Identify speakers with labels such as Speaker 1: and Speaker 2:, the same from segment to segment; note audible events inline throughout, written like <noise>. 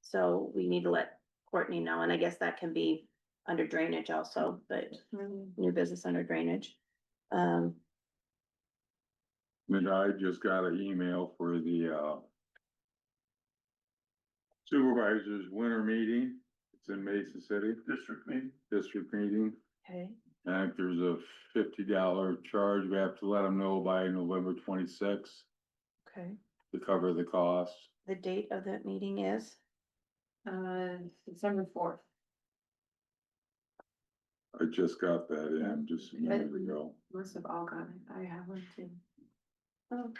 Speaker 1: so we need to let Courtney know, and I guess that can be under drainage also, but new business under drainage. Um,
Speaker 2: And I just got an email for the, uh. Supervisors winter meeting, it's in Mesa City. District meeting. District meeting,
Speaker 1: okay,
Speaker 2: and if there's a fifty dollar charge, we have to let them know by November twenty-sixth
Speaker 1: okay.
Speaker 2: to cover the cost.
Speaker 1: The date of that meeting is,
Speaker 3: Uh, December fourth.
Speaker 2: I just got that in just a minute ago.
Speaker 3: Must have all gone. I have one too.
Speaker 1: Oh.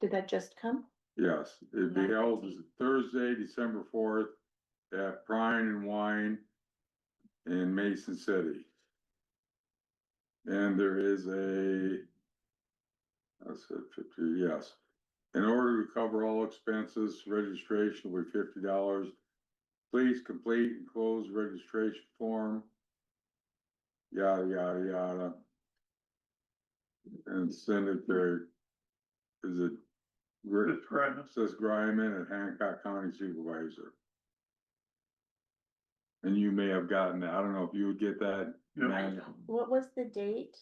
Speaker 1: did that just come?
Speaker 2: Yes, it'd be held as Thursday, December fourth, at Prime and Wine in Mason City. And there is a, I said fifty, yes. In order to cover all expenses, registration will be fifty dollars. Please complete and close registration form. Yada, yada, yada. And send it to, is it? Rick? Says Griman at Hancock County Supervisor. And you may have gotten that. I don't know if you would get that. Matt.
Speaker 1: What was the date?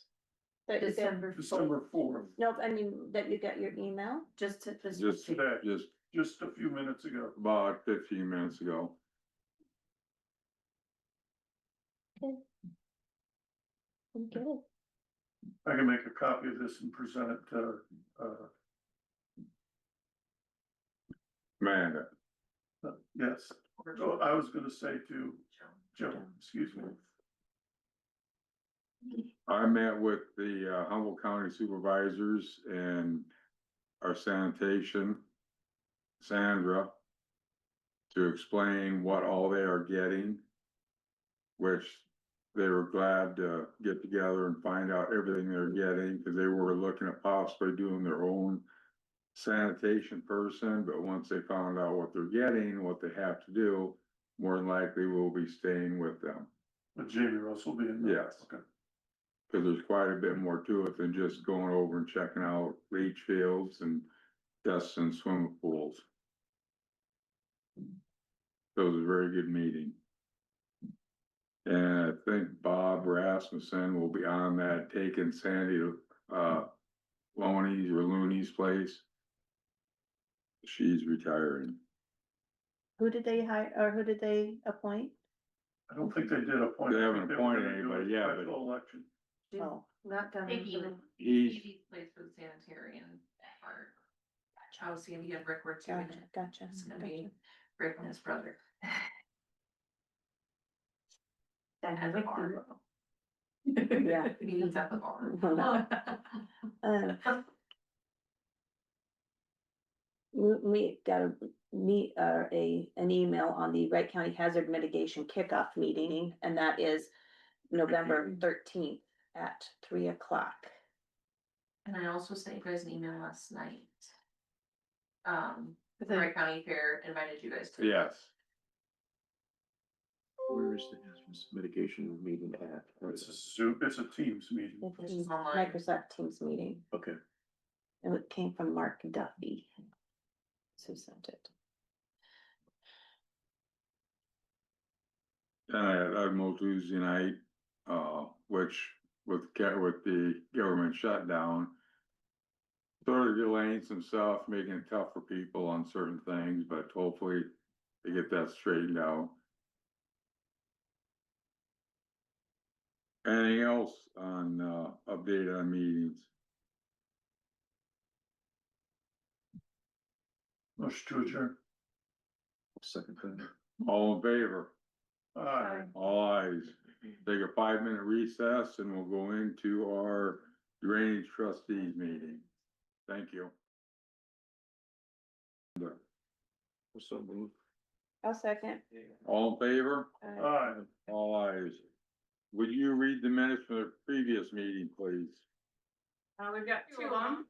Speaker 1: That you got,
Speaker 3: December.
Speaker 4: December fourth,
Speaker 1: no, I mean, that you got your email?
Speaker 3: Just to, just.
Speaker 2: Just,
Speaker 4: today,
Speaker 2: just
Speaker 4: just a few minutes ago.
Speaker 2: about fifteen minutes ago.
Speaker 1: Okay.
Speaker 4: I can make a copy of this and present it to, uh,
Speaker 2: Amanda,
Speaker 4: uh, yes. Oh, I was gonna say to Joe, excuse me.
Speaker 2: I met with the uh, Humboldt County Supervisors and our sanitation, Sandra, to explain what all they are getting, which they were glad to get together and find out everything they're getting, because they were looking at possibly doing their own sanitation person, but once they found out what they're getting, what they have to do, more than likely we'll be staying with them.
Speaker 4: But Jamie Russell being. there.
Speaker 2: Yes.
Speaker 4: Okay.
Speaker 2: Cause there's quite a bit more to it than just going over and checking out leach fields and dusts and swimming pools. So It was a very good meeting. And I think Bob Rasmussen will be on that, taking Sandy to, uh, Loney's or Looney's place. She's retiring.
Speaker 1: Who did they hire, or who did they appoint?
Speaker 4: I don't think they did appoint.
Speaker 2: They haven't
Speaker 4: were gonna
Speaker 2: appointed
Speaker 4: do a
Speaker 2: anybody, yeah, but-
Speaker 4: Special election.
Speaker 1: Oh.
Speaker 3: Not done.
Speaker 5: Vicky.
Speaker 2: He's,
Speaker 5: Easy place for the sanitary and our Chelsea and you had Rick work too. and
Speaker 1: Gotcha, gotcha.
Speaker 5: It's gonna
Speaker 1: gotcha.
Speaker 5: be Rick and his brother.
Speaker 3: That
Speaker 5: At the bar. <laughs>
Speaker 1: Yeah.
Speaker 5: Meetings at the bar.
Speaker 1: <laughs> Well, Um, We, we got a meet, uh, a, an email on the Wright County Hazard Mitigation Kickoff Meeting, and that is November thirteenth at three o'clock.
Speaker 5: <laughs> And I also sent you guys an email last night. Um,
Speaker 3: But
Speaker 5: the
Speaker 3: then-
Speaker 5: Wright County Fair invited you guys to.
Speaker 2: yes,
Speaker 6: Where is the hazardous mitigation meeting at? Or is
Speaker 4: It's a
Speaker 6: this-
Speaker 4: Zoom, it's a Teams meeting.
Speaker 5: This
Speaker 1: It's
Speaker 5: is
Speaker 1: the
Speaker 5: online.
Speaker 1: Microsoft Teams meeting,
Speaker 6: Okay,
Speaker 1: and it came from Mark Duffy. Who sent it?
Speaker 2: And I had Ugmo Tuesday night, uh, which with ca- with the government shutdown. Started delaying some stuff, making it tough for people on certain things, but hopefully they get that straightened out. Anything else on, uh, update on meetings?
Speaker 4: Motion to adjourn.
Speaker 6: second thing.
Speaker 2: All in favor?
Speaker 4: Aye.
Speaker 2: All eyes. Take a five minute recess and we'll go into our drainage trustees meeting. Thank you.
Speaker 6: So move.
Speaker 1: I'll second.
Speaker 2: All in favor?
Speaker 1: Uh,
Speaker 4: Aye.
Speaker 2: All eyes. Would you read the minutes from the previous meeting, please?
Speaker 7: Uh, we've got two of them.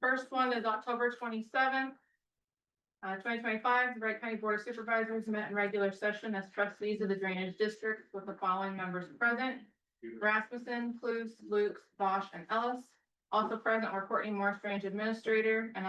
Speaker 7: First one is October twenty-seventh. Uh, twenty twenty-five, the Wright County Board of Supervisors met in regular session as trustees of the drainage district with the following members present. Rasmussen, Clues, Luke, Bosch, and Ellis. Also present were Courtney Morris, Drainage Administrator, and